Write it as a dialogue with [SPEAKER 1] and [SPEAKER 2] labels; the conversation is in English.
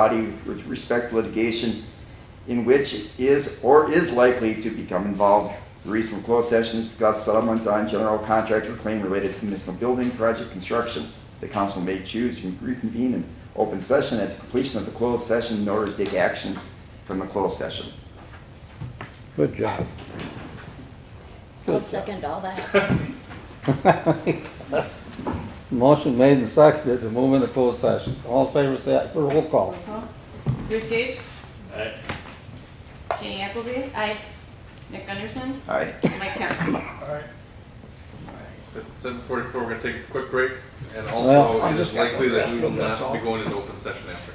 [SPEAKER 1] body with respect to litigation in which is or is likely to become involved. The reason for closed session is to discuss settlement on general contract or claim related to municipal building project construction. The council may choose to reconvene in open session at the completion of the closed session in order to take actions from the closed session.
[SPEAKER 2] Good job.
[SPEAKER 3] I'll second all that.
[SPEAKER 2] Motion made and seconded to move into closed session. All in favor, say aye. Roll call.
[SPEAKER 4] Bruce Gage,
[SPEAKER 5] Aye.
[SPEAKER 4] Jenny Appleby. Aye. Nick Gunderson,
[SPEAKER 1] Aye.
[SPEAKER 4] Mike Kemp.
[SPEAKER 6] At seven forty-four, we're gonna take a quick break, and
[SPEAKER 2] Well,
[SPEAKER 6] also,
[SPEAKER 2] I
[SPEAKER 6] it
[SPEAKER 2] just
[SPEAKER 6] is
[SPEAKER 2] got
[SPEAKER 6] likely
[SPEAKER 2] one
[SPEAKER 6] that we will
[SPEAKER 2] question, that's
[SPEAKER 6] not be
[SPEAKER 2] all.
[SPEAKER 6] going into open session after.